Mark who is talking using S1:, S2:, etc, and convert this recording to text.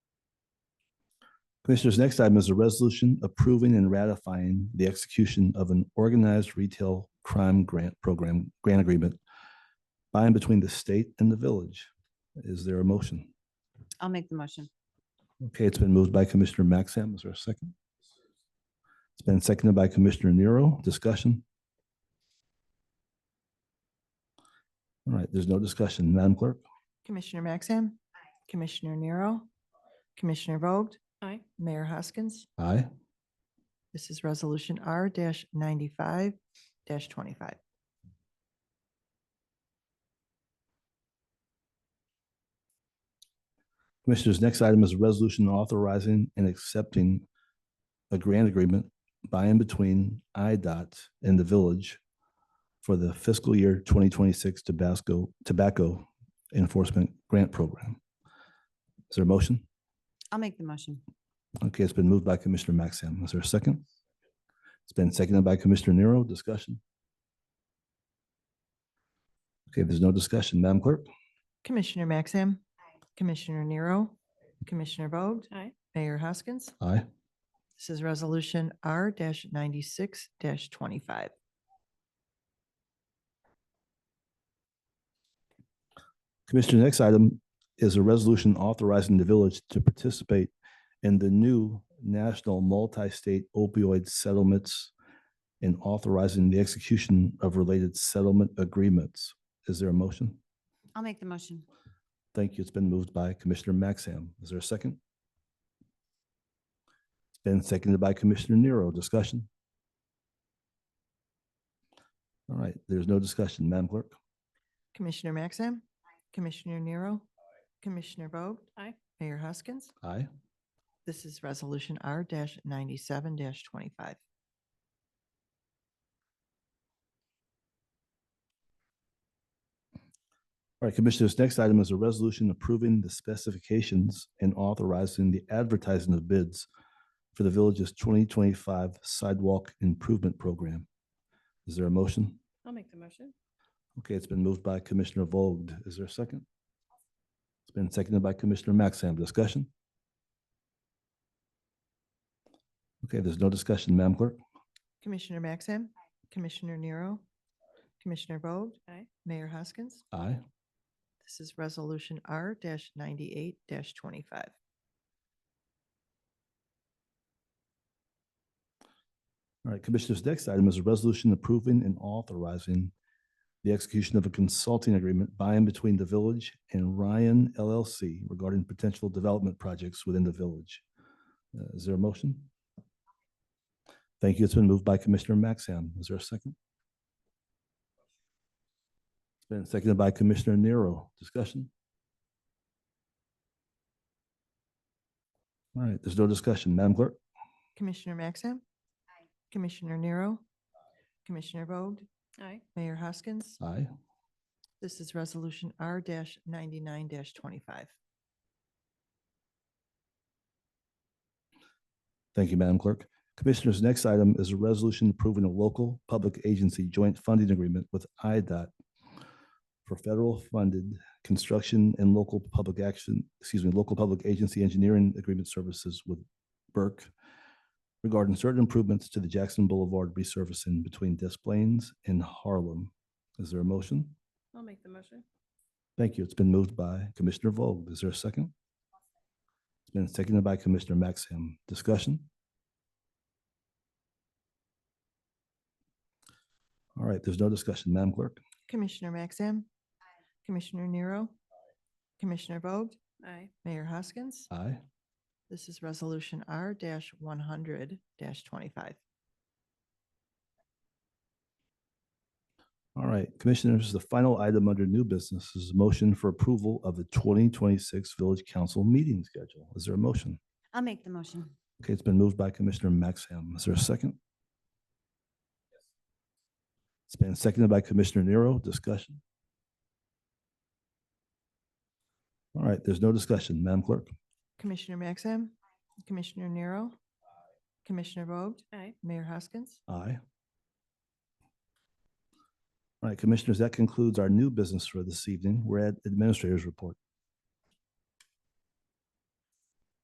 S1: Commissioners, next item is a resolution approving and ratifying the execution of an organized retail crime grant program, grant agreement by and between the state and the village. Is there a motion?
S2: I'll make the motion.
S1: Okay, it's been moved by Commissioner Maxim. Is there a second? It's been seconded by Commissioner Nero. Discussion? All right, there's no discussion. Madam Clerk?
S3: Commissioner Maxim. Commissioner Nero. Commissioner Vogt.
S2: Aye.
S3: Mayor Hoskins.
S1: Aye.
S3: This is Resolution R ninety-five twenty-five.
S1: Commissioners, next item is a resolution authorizing and accepting a grant agreement by and between IDOT and the village for the fiscal year twenty twenty-six Tabasco Tobacco Enforcement Grant Program. Is there a motion?
S2: I'll make the motion.
S1: Okay, it's been moved by Commissioner Maxim. Is there a second? It's been seconded by Commissioner Nero. Discussion? Okay, there's no discussion. Madam Clerk?
S3: Commissioner Maxim. Commissioner Nero. Commissioner Vogt.
S2: Aye.
S3: Mayor Hoskins.
S1: Aye.
S3: This is Resolution R ninety-six twenty-five.
S1: Commissioner, next item is a resolution authorizing the village to participate in the new national multi-state opioid settlements and authorizing the execution of related settlement agreements. Is there a motion?
S2: I'll make the motion.
S1: Thank you. It's been moved by Commissioner Maxim. Is there a second? It's been seconded by Commissioner Nero. Discussion? All right, there's no discussion. Madam Clerk?
S3: Commissioner Maxim. Commissioner Nero. Commissioner Vogt.
S2: Aye.
S3: Mayor Hoskins.
S1: Aye.
S3: This is Resolution R ninety-seven twenty-five.
S1: All right, Commissioners, next item is a resolution approving the specifications and authorizing the advertising of bids for the village's twenty twenty-five sidewalk improvement program. Is there a motion?
S2: I'll make the motion.
S1: Okay, it's been moved by Commissioner Vogt. Is there a second? It's been seconded by Commissioner Maxim. Discussion? Okay, there's no discussion, Madam Clerk.
S3: Commissioner Maxim. Commissioner Nero. Commissioner Vogt.
S2: Aye.
S3: Mayor Hoskins.
S1: Aye.
S3: This is Resolution R ninety-eight twenty-five.
S1: All right, Commissioners, next item is a resolution approving and authorizing the execution of a consulting agreement by and between the village and Ryan LLC regarding potential development projects within the village. Uh, Is there a motion? Thank you. It's been moved by Commissioner Maxham. Is there a second? It's been seconded by Commissioner Nero. Discussion? All right, there's no discussion. Madam Clerk?
S3: Commissioner Maxim. Commissioner Nero. Commissioner Vogt.
S2: Aye.
S3: Mayor Hoskins.
S1: Aye.
S3: This is Resolution R ninety-nine twenty-five.
S1: Thank you, Madam Clerk. Commissioners, next item is a resolution approving a local public agency joint funding agreement with IDOT for federal funded construction and local public action, excuse me, local public agency engineering agreement services with Burke regarding certain improvements to the Jackson Boulevard resurfacing between Des Plaines and Harlem. Is there a motion?
S2: I'll make the motion.
S1: Thank you. It's been moved by Commissioner Vogt. Is there a second? It's been seconded by Commissioner Maxim. Discussion? All right, there's no discussion. Madam Clerk?
S3: Commissioner Maxim. Commissioner Nero. Commissioner Vogt.
S2: Aye.
S3: Mayor Hoskins.
S1: Aye.
S3: This is Resolution R one hundred twenty-five.
S1: All right, Commissioners, the final item under new business is a motion for approval of the 2026 Village Council meeting schedule. Is there a motion?
S2: I'll make the motion.
S1: Okay, it's been moved by Commissioner Maxham. Is there a second? It's been seconded by Commissioner Nero. Discussion? All right, there's no discussion. Madam Clerk?
S3: Commissioner Maxim. Commissioner Nero. Commissioner Vogt.
S2: Aye.
S3: Mayor Hoskins.
S1: Aye. All right, Commissioners, that concludes our new business for this evening. We're at Administrator's Report.